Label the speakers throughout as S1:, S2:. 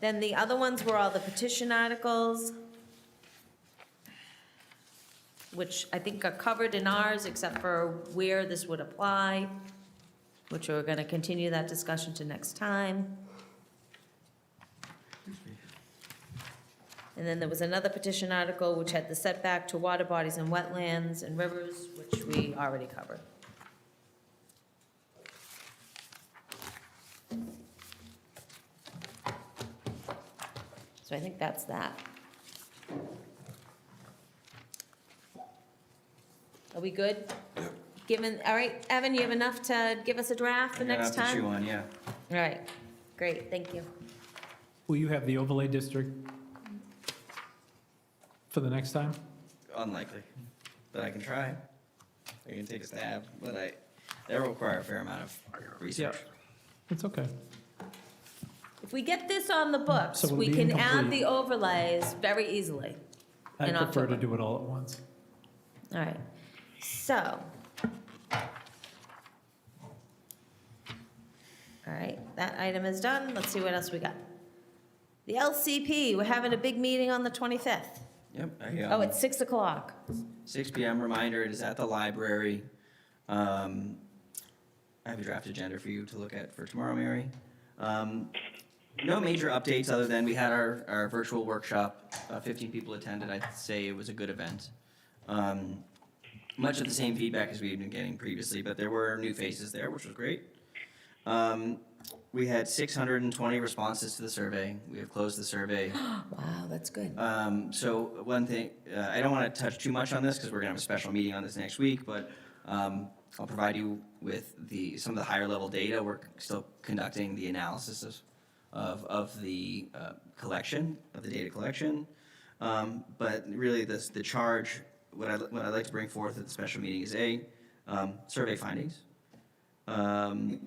S1: Then the other ones were all the petition articles, which I think are covered in ours, except for where this would apply, which we're going to continue that discussion to next time. And then there was another petition article which had the setback to water bodies and wetlands and rivers, which we already covered. So I think that's that. Are we good? Given, all right, Evan, you have enough to give us a draft for
S2: I got
S1: next
S2: enough to chew
S1: time?
S2: on, yeah.
S1: All right, great, thank you.
S3: Will you have the overlay district for the next time?
S2: Unlikely, but I can try. I can take a stab, but I, that'll require a fair amount of research.
S3: It's okay.
S1: If we get this on the books,
S3: So it'll
S1: we
S3: be
S1: can add
S3: incomplete.
S1: the overlays very easily.
S3: I
S1: In
S3: prefer
S1: October.
S3: to do it all at once.
S1: All right, so. All right, that item is done. Let's see what else we got. The LCP, we're having a big meeting on the 25th.
S2: Yep, I,
S1: Oh,
S2: um,
S1: it's 6 o'clock.
S2: six P M reminder, it is at the library. Um, I have a draft agenda for you to look at for tomorrow, Mary. Um, no major updates other than we had our, our virtual workshop, uh, fifteen people attended, I'd say it was a good event. Um, much of the same feedback as we've been getting previously, but there were new faces there, which was great. Um, we had six hundred and twenty responses to the survey, we have closed the survey.
S1: Wow, that's good.
S2: Um, so one thing, uh, I don't want to touch too much on this because we're going to have a special meeting on this next week, but um, I'll provide you with the, some of the higher level data. We're still conducting the analysis of, of, of the uh, collection, of the data collection. Um, but really this, the charge, what I, what I'd like to bring forth at the special meeting is A, um, survey findings, um,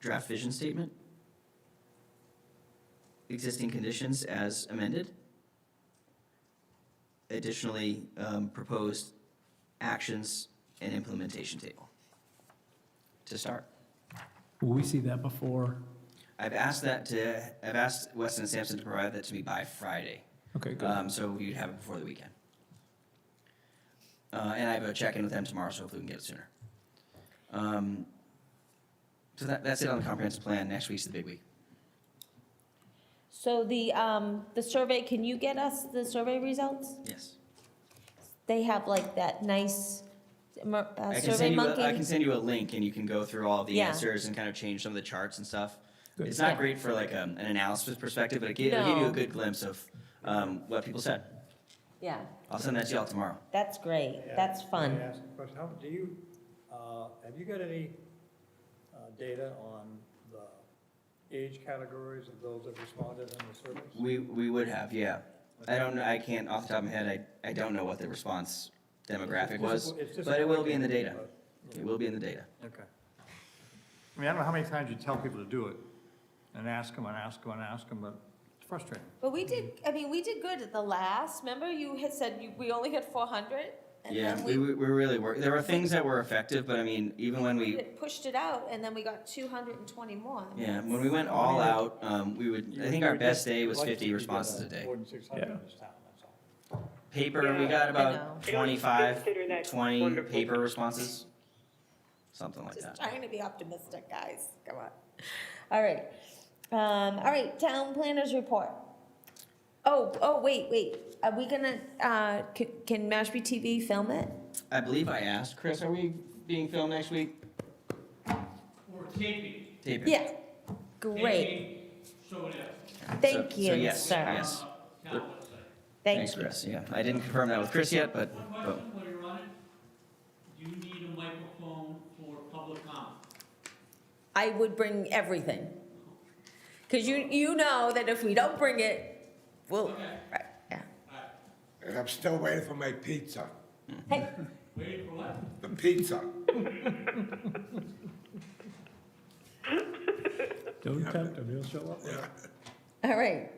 S2: draft vision statement, existing conditions as amended. Additionally, um, proposed actions and implementation table to start.
S3: Will we see that before?
S2: I've asked that to, I've asked Weston and Sampson to provide that to me by Friday.
S3: Okay, good.
S2: Um, so we'd have it before the weekend. Uh, and I have a check-in with them tomorrow, so hopefully we can get it sooner. Um, so that, that's it on the comprehensive plan. Next week's the big week.
S1: So the, um, the survey, can you get us the survey results?
S2: Yes.
S1: They have like that nice mer- uh,
S2: I can
S1: survey
S2: send you. A, I can
S1: monkey.
S2: send you a link, and you can go through all the
S1: Yeah.
S2: answers and kind of change some of the charts and stuff.
S3: Good.
S2: It's not
S1: Yeah.
S2: great for like um, an analysis perspective, but it gave, it'll give you
S1: No.
S2: a good glimpse of um, what people said.
S1: Yeah,
S2: I'll send that to y'all tomorrow.
S1: that's great.
S4: Yeah.
S1: That's
S4: Let me
S1: fun.
S4: ask a question. How, do you, uh, have you got any, uh, data on the age categories of those that responded in the surveys?
S2: We we would have, yeah. I don't. know. I can't off the top of my head. I I don't know what the response demographic
S4: It's just-
S2: was,
S4: it's just-
S2: but it will be in the data. It will be in the data.
S4: Okay. I mean, I don't know how many times you tell people to do it, and ask them, and ask them, and ask them, but it's frustrating.
S1: But we did, I mean, we did good at the last. Remember you had said you- we only had 400? and
S2: Yeah,
S1: then
S2: we we we really were. There were things that were effective, but I mean, even when we
S1: It pushed it out, and then we got two hundred and twenty more.
S2: Yeah, when we went all out, um, we would, I think our best day was fifty responses a day.
S4: More than six hundred in this town, that's all.
S2: Paper, we got
S1: I know.
S2: about twenty-five,
S5: Consider that
S2: twenty
S5: wonderful.
S2: paper responses, something like
S1: Just
S2: that.
S1: trying to be optimistic, guys, come on. All right, um, all right, town planners report. Oh, oh, wait, wait, are we gonna, uh, can, can Mashpee TV film it?
S2: I believe I asked, Chris, are we being filmed next week?
S6: Or taping.
S2: Taping.
S1: Yeah, great,
S6: Taping Someone else.
S1: thank
S2: So- so
S1: you,
S2: yes,
S1: sir.
S2: Yes,
S6: Now, one second.
S1: Thank
S2: thanks,
S1: you.
S2: Chris, yeah. I didn't confirm that with Chris yet, but,
S6: One
S2: but
S6: question, while you're on it. Do you need a microphone for public comment?
S1: I would bring everything. Cause you, you know that if we don't bring it, we'll, right, yeah.
S7: And I'm still waiting for my pizza.
S1: Hey,
S6: Waiting for what?
S7: The pizza.
S3: Don't tempt him, he'll show up.
S1: all right,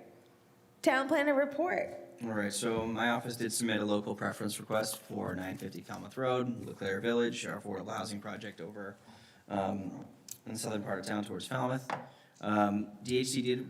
S1: town planner report.
S2: All right, so my office did submit a local preference request for nine fifty Falmouth Road, Leclerc Village, our affordable housing project over um, in the southern part of town towards Falmouth. Um, DHC did